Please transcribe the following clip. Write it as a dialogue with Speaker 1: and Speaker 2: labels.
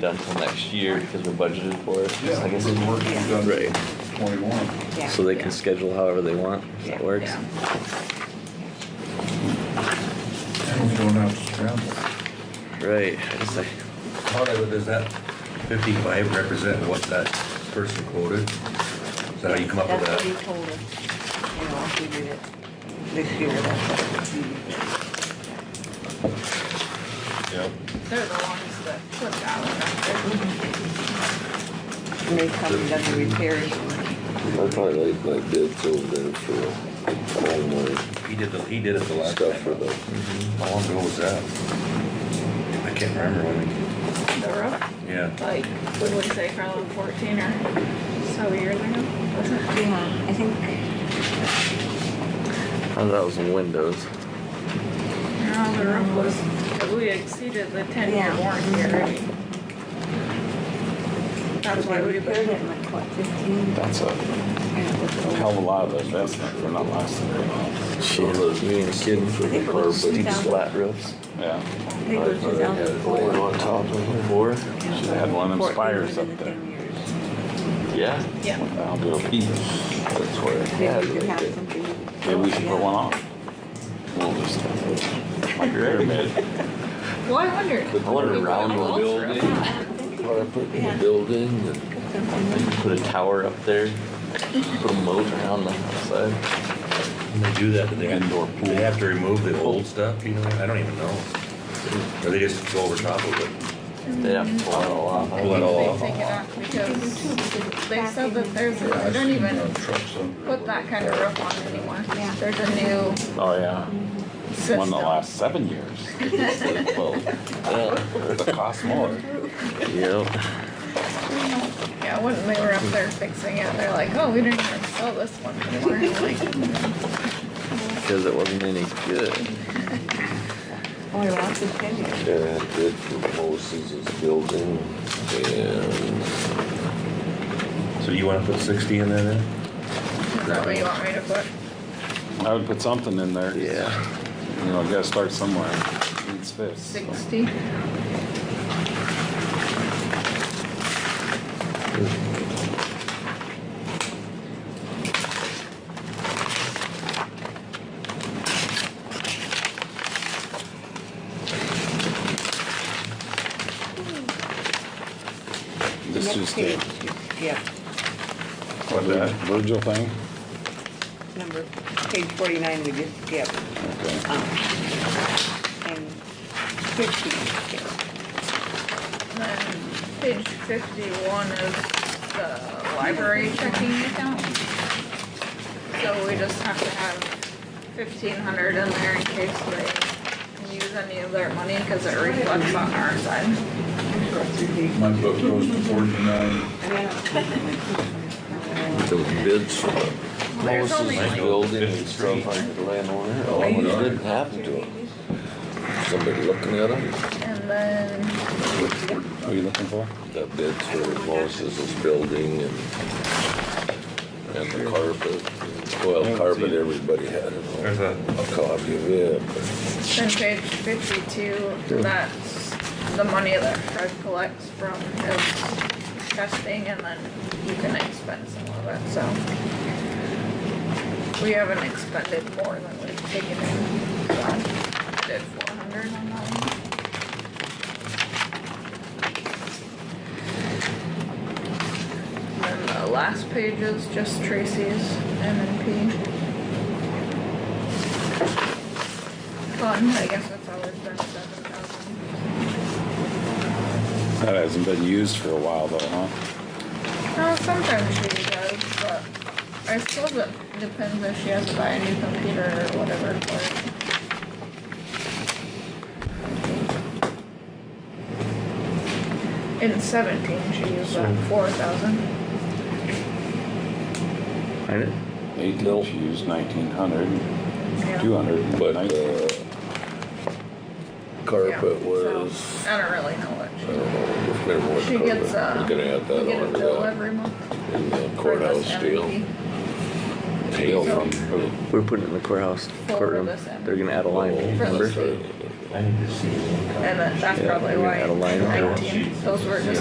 Speaker 1: done till next year because we're budgeted for it.
Speaker 2: Yeah,
Speaker 1: I guess
Speaker 2: we're
Speaker 1: it-
Speaker 2: working done
Speaker 1: Right.
Speaker 2: twenty-one.
Speaker 3: Yeah.
Speaker 1: So they can schedule however they want, if that
Speaker 3: Yeah,
Speaker 1: works.
Speaker 3: yeah.
Speaker 2: And we don't have to scramble.
Speaker 1: Right, I just like,
Speaker 4: How does does that fifty-five represent what that person quoted? Is that how you come up with
Speaker 3: That's what he
Speaker 4: that?
Speaker 3: told us, you know, if we did it this year, that's what we did.
Speaker 4: Yeah.
Speaker 5: They're the ones that put that one up
Speaker 3: And they come and done the repairs.
Speaker 6: I probably like my bids over there for all my
Speaker 4: He did the, he did it the last
Speaker 6: stuff for
Speaker 4: time.
Speaker 6: the,
Speaker 4: How long ago was that? I can't remember when
Speaker 5: there. The roof,
Speaker 4: we, yeah.
Speaker 5: like, what would we say, probably fourteen or so years ago, was it?
Speaker 3: Yeah, I think.
Speaker 1: oh, that was windows.
Speaker 5: No, the roof was, we exceeded the ten year
Speaker 3: Yeah.
Speaker 5: warranty already. That's why we.
Speaker 3: Repaired it in like, what, fifteen?
Speaker 7: That's a
Speaker 3: And it was
Speaker 7: hell
Speaker 3: old.
Speaker 7: of a lot of investment for not lasting very long.
Speaker 1: Shit, those me and kidding for
Speaker 3: think it
Speaker 1: the
Speaker 3: was
Speaker 1: steep
Speaker 3: 2000.
Speaker 1: flat roofs.
Speaker 7: Yeah,
Speaker 3: I think it was two thousand
Speaker 6: Going
Speaker 3: four.
Speaker 6: on top of it.
Speaker 1: Four?
Speaker 7: Should've had one of them spires up there.
Speaker 1: Yeah.
Speaker 5: Yeah,
Speaker 7: I'll do a piece. That's where,
Speaker 3: Maybe we could have something.
Speaker 7: maybe we should put one on. We'll just, like a pyramid.
Speaker 5: well, I wondered.
Speaker 1: I wonder
Speaker 5: We
Speaker 1: round
Speaker 5: went all
Speaker 1: one
Speaker 5: through
Speaker 1: building.
Speaker 5: that.
Speaker 6: What I put in the
Speaker 3: Yeah.
Speaker 6: building and
Speaker 3: Something.
Speaker 1: Put a tower up there, put a moat around the outside.
Speaker 4: When they do that, do they,
Speaker 7: Indoor pool.
Speaker 4: they have to remove the old stuff, you know, I don't even know. Or they just go over top of it,
Speaker 1: They'd have to pull that all off.
Speaker 4: pull it all
Speaker 5: They
Speaker 4: off?
Speaker 5: take it off because they said that there's,
Speaker 2: Yeah,
Speaker 5: I
Speaker 2: I've
Speaker 5: don't
Speaker 2: seen
Speaker 5: even
Speaker 2: the Trucks under.
Speaker 5: put that kind of roof on anymore.
Speaker 3: Yeah.
Speaker 5: There's a new
Speaker 7: Oh, yeah.
Speaker 5: system.
Speaker 7: One in the last seven years. Well,
Speaker 1: Yeah.
Speaker 7: It costs more.
Speaker 1: Yep.
Speaker 5: Yeah, when they were up there fixing it, they're like, oh, we didn't even sell this one anymore. And I'm like,
Speaker 1: Because it wasn't any good.
Speaker 3: Oh, I lost it ten years.
Speaker 6: uh, bid for Moses's building and
Speaker 4: So you wanna put sixty in there then?
Speaker 5: Is that what you want me to put?
Speaker 7: I would put something in there.
Speaker 1: Yeah.
Speaker 7: You know, you gotta start somewhere. Needs fifths.
Speaker 5: Sixty?
Speaker 7: This is the
Speaker 3: Next page. Yeah,
Speaker 7: what, that Virgil thing?
Speaker 3: number, page forty-nine we just skipped.
Speaker 7: Okay.
Speaker 3: Um, And fifty we skipped.
Speaker 5: And then page fifty-one is the library checking account. So we just have to have fifteen hundred in there in case they use any of their money, cause it reflects on our side.
Speaker 2: My book goes to forty-nine.
Speaker 6: those bids for the
Speaker 5: There's only
Speaker 6: Moses's
Speaker 5: like-
Speaker 6: building and stuff like the landowner. Oh,
Speaker 2: Oh,
Speaker 6: what
Speaker 2: yeah.
Speaker 6: didn't happen to them? Somebody looking at them?
Speaker 5: And then,
Speaker 7: What are you looking for?
Speaker 6: The bids for Moses's building and and the carpet. Well, carpet, everybody had
Speaker 4: There's
Speaker 6: it.
Speaker 4: a,
Speaker 6: A copy of it, but.
Speaker 5: then page fifty-two, that's the money that Fred collects from his testing and then you can expend some of it, so. We haven't expended more than we've taken in, so I did four hundred on that one. And then the last page is just Tracy's M and P. Fun, I guess that's always been seven thousand.
Speaker 7: That hasn't been used for a while though, huh?
Speaker 5: No, sometimes she does, but I suppose it depends if she has to buy a new computer or whatever for it. In seventeen, she used about four thousand.
Speaker 1: Find it?
Speaker 7: Eighteen, she used nineteen hundred, two
Speaker 5: Yeah.
Speaker 7: hundred, but
Speaker 6: But,
Speaker 7: nineteen.
Speaker 6: uh, carpet
Speaker 5: Yeah,
Speaker 6: was,
Speaker 5: so, I don't really know what
Speaker 6: I don't know, if there was
Speaker 5: she, she
Speaker 6: carpet,
Speaker 5: gets, uh,
Speaker 6: we're
Speaker 5: we
Speaker 6: gonna
Speaker 5: get
Speaker 6: add that
Speaker 5: a
Speaker 6: on
Speaker 5: bill
Speaker 6: to
Speaker 5: every month.
Speaker 6: that. And the
Speaker 5: for
Speaker 6: courthouse
Speaker 5: this
Speaker 6: steel,
Speaker 5: MP.
Speaker 6: tail
Speaker 7: from
Speaker 6: from.
Speaker 1: We're putting it in the courthouse
Speaker 5: Forward
Speaker 1: courtroom.
Speaker 5: this in.
Speaker 4: Oh,
Speaker 1: They're gonna add a line,
Speaker 5: For
Speaker 1: remember?
Speaker 5: this.
Speaker 8: I need to see.
Speaker 9: and that- that's probably
Speaker 4: we had a line
Speaker 9: why
Speaker 4: item.
Speaker 9: nineteen, those were just